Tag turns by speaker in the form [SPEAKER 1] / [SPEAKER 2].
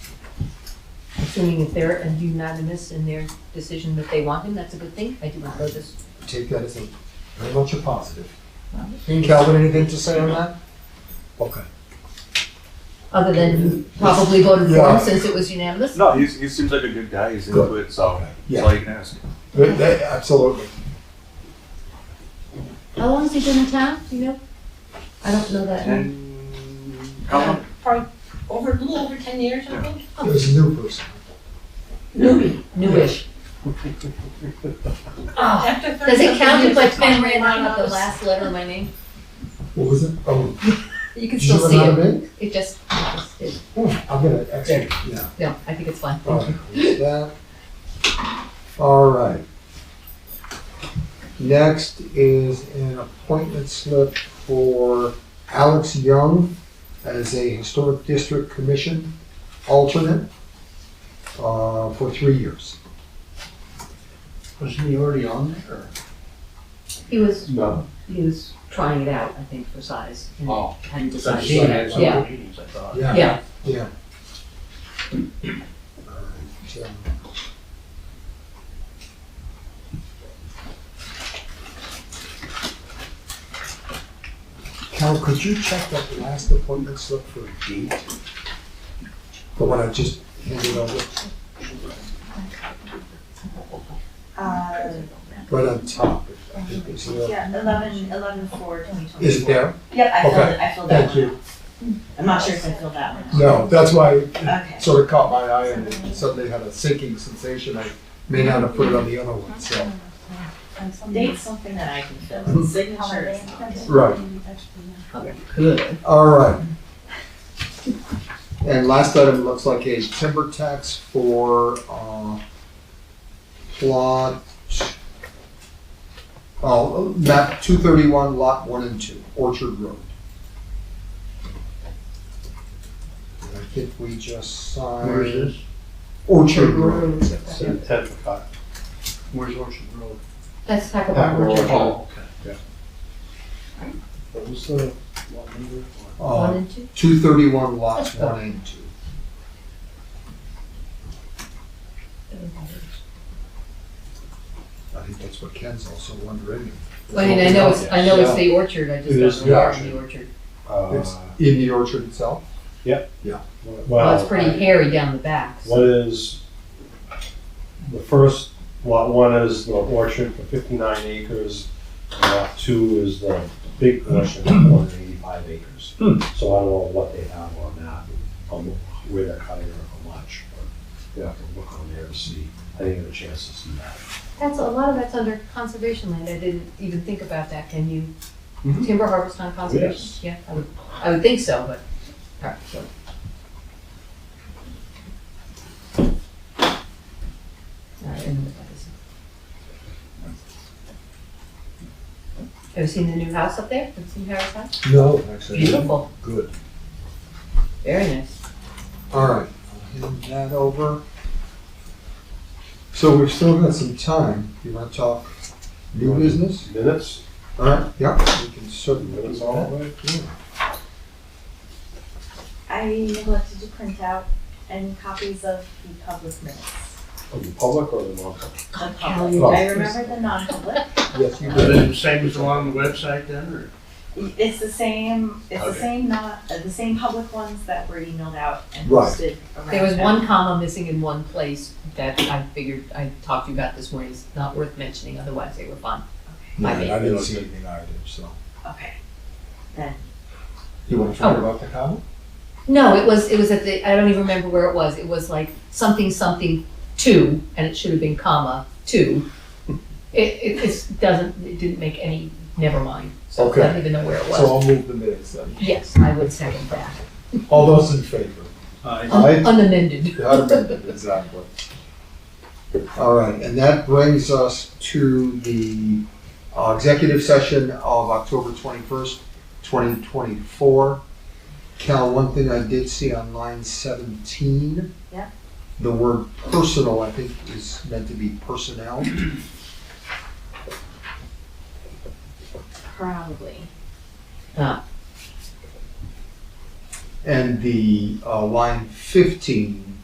[SPEAKER 1] assuming if they're unanimous in their decision that they want him, that's a good thing. I do not know this.
[SPEAKER 2] Take that as a, very much a positive. Calvin, anything to say on that? Okay.
[SPEAKER 1] Other than probably voted for
[SPEAKER 2] Yeah.
[SPEAKER 1] him since it was unanimous.
[SPEAKER 3] No, he's, he seems like a good guy. He's
[SPEAKER 2] Good.
[SPEAKER 3] into it, so
[SPEAKER 2] Yeah.
[SPEAKER 3] that's all you can ask.
[SPEAKER 2] But that- Absolutely.
[SPEAKER 1] How long has he been in town, do you know? I don't know that.
[SPEAKER 3] And how long?
[SPEAKER 4] Probably over, a little over ten years, I think.
[SPEAKER 2] It was a new person.
[SPEAKER 1] Newbie, newish. Ah,
[SPEAKER 4] After
[SPEAKER 1] Does it
[SPEAKER 4] 30
[SPEAKER 1] count if I
[SPEAKER 4] years,
[SPEAKER 1] pen
[SPEAKER 4] my
[SPEAKER 1] ran out
[SPEAKER 4] mom
[SPEAKER 1] of the
[SPEAKER 4] was-
[SPEAKER 1] last letter of my name?
[SPEAKER 2] What was it? Oh,
[SPEAKER 1] You can
[SPEAKER 2] did you
[SPEAKER 1] still
[SPEAKER 2] run
[SPEAKER 1] see
[SPEAKER 2] out of
[SPEAKER 1] it.
[SPEAKER 2] ink?
[SPEAKER 1] It just, it just- it-
[SPEAKER 2] Oh, I'm gonna, actually, yeah.
[SPEAKER 1] no, I think it's fine.
[SPEAKER 2] Alright, there's that. All right. Next is an appointment slip for Alex Young as a Historic District Commission alternate uh, for three years.
[SPEAKER 5] Wasn't he already on there?
[SPEAKER 1] He was,
[SPEAKER 5] No.
[SPEAKER 1] he was trying it out, I think, for size. and
[SPEAKER 5] Oh.
[SPEAKER 1] Hadn't
[SPEAKER 5] Because
[SPEAKER 1] decided.
[SPEAKER 5] he had some
[SPEAKER 1] Yeah,
[SPEAKER 5] meetings, I thought.
[SPEAKER 1] yeah.
[SPEAKER 2] Yeah. Alright, um, Cal, could you check that last appointment slip for a date? The one I just handed over,
[SPEAKER 4] Uh,
[SPEAKER 2] right on top. I think it's there.
[SPEAKER 4] yeah, eleven, eleven four, twenty twenty.
[SPEAKER 2] Is it there?
[SPEAKER 4] Yep, I filled
[SPEAKER 2] Okay.
[SPEAKER 4] it, I filled that
[SPEAKER 2] Thank
[SPEAKER 4] one.
[SPEAKER 2] you.
[SPEAKER 4] I'm not sure if I filled that one.
[SPEAKER 2] No, that's why it
[SPEAKER 4] Okay.
[SPEAKER 2] sort of caught my eye and suddenly had a sinking sensation. I may not have put it on the other one, so.
[SPEAKER 4] Date's something that I can
[SPEAKER 2] Mm-hmm.
[SPEAKER 4] fill, signature is not.
[SPEAKER 2] Right.
[SPEAKER 1] Good.
[SPEAKER 2] All right. And last item looks like a timber tax for, uh, plot, oh, map two thirty-one, lot one and two, Orchard Road. And I think we just signed.
[SPEAKER 5] Where is this?
[SPEAKER 2] Orchard Road.
[SPEAKER 5] Where's Orchard Road?
[SPEAKER 1] Let's talk about Richard.
[SPEAKER 5] Oh, okay. What was the, what number?
[SPEAKER 1] One
[SPEAKER 2] Uh,
[SPEAKER 1] and two.
[SPEAKER 2] two thirty-one, lots one and two. I think that's what Ken's also wondering.
[SPEAKER 1] Well, I mean, I know it's, I know it's the orchard, I
[SPEAKER 6] It
[SPEAKER 1] just
[SPEAKER 6] is
[SPEAKER 1] don't
[SPEAKER 6] the
[SPEAKER 1] know where in the orchard.
[SPEAKER 2] It's
[SPEAKER 6] Uh,
[SPEAKER 2] in the orchard itself.
[SPEAKER 1] Well,
[SPEAKER 6] Well,
[SPEAKER 1] it's pretty hairy down the back, so-
[SPEAKER 6] One is, the first, lot one is the orchard for fifty-nine acres, and lot two is the big portion, one hundred eighty-five acres. So I don't know what they have on that, on where they're cutting or how much, but you have to look on there to see. I didn't get a chance to see that.
[SPEAKER 1] That's, a lot of that's under conservation land, I didn't even think about that, can you
[SPEAKER 6] Mhm.
[SPEAKER 1] timber harvest on conservation?
[SPEAKER 6] Yes.
[SPEAKER 1] Yeah, I would, I would think so, but, alright, so. Alright, and what is it? Have you seen the new house up there, have you seen Harry's house?
[SPEAKER 2] No, actually.
[SPEAKER 1] Beautiful,
[SPEAKER 2] Good.
[SPEAKER 1] very nice.
[SPEAKER 2] All right, I'll hand that over. So we've still got some time. You want to talk new business?
[SPEAKER 6] Minutes,
[SPEAKER 2] All right, yeah, we can certainly do
[SPEAKER 6] minutes all
[SPEAKER 2] that.
[SPEAKER 6] the way?
[SPEAKER 4] I neglected to print out any copies of the public minutes.
[SPEAKER 6] Of the public or the non-public?
[SPEAKER 4] The public,
[SPEAKER 2] Oh.
[SPEAKER 4] I remember the non-public.
[SPEAKER 2] Yes, you
[SPEAKER 5] Is
[SPEAKER 2] did.
[SPEAKER 5] it the same as along the website then, or?
[SPEAKER 4] It's the same, it's the
[SPEAKER 5] Okay.
[SPEAKER 4] same not, uh, the same public ones that were emailed out and
[SPEAKER 2] Right.
[SPEAKER 4] posted around.
[SPEAKER 1] There was one comma missing in one place that I figured, I talked to you about this morning, it's not worth mentioning, otherwise they were fine.
[SPEAKER 2] No,
[SPEAKER 1] My bad.
[SPEAKER 2] I didn't see anything either, so.
[SPEAKER 4] Okay.
[SPEAKER 2] You want to talk
[SPEAKER 1] Oh.
[SPEAKER 2] about the comment?
[SPEAKER 1] No, it was, it was at the, I don't even remember where it was, it was like something, something, two, and it should have been comma, two. It, it, it's, doesn't, it didn't make any, never mind, so I don't
[SPEAKER 2] Okay.
[SPEAKER 1] even know where it
[SPEAKER 2] So
[SPEAKER 1] was.
[SPEAKER 2] I'll move the minutes then.
[SPEAKER 1] Yes, I would second that,
[SPEAKER 2] All those in favor?
[SPEAKER 5] Uh,
[SPEAKER 2] Aye.
[SPEAKER 1] Un- unamended.
[SPEAKER 2] The other amendment, Exactly. All right, and that brings us to the uh, executive session of October twenty-first, twenty twenty-four. Cal, one thing I did see on line seventeen.
[SPEAKER 4] Yeah.
[SPEAKER 2] The word personal, I think, is meant to be personnel.
[SPEAKER 4] Probably.
[SPEAKER 2] And the uh, line fifteen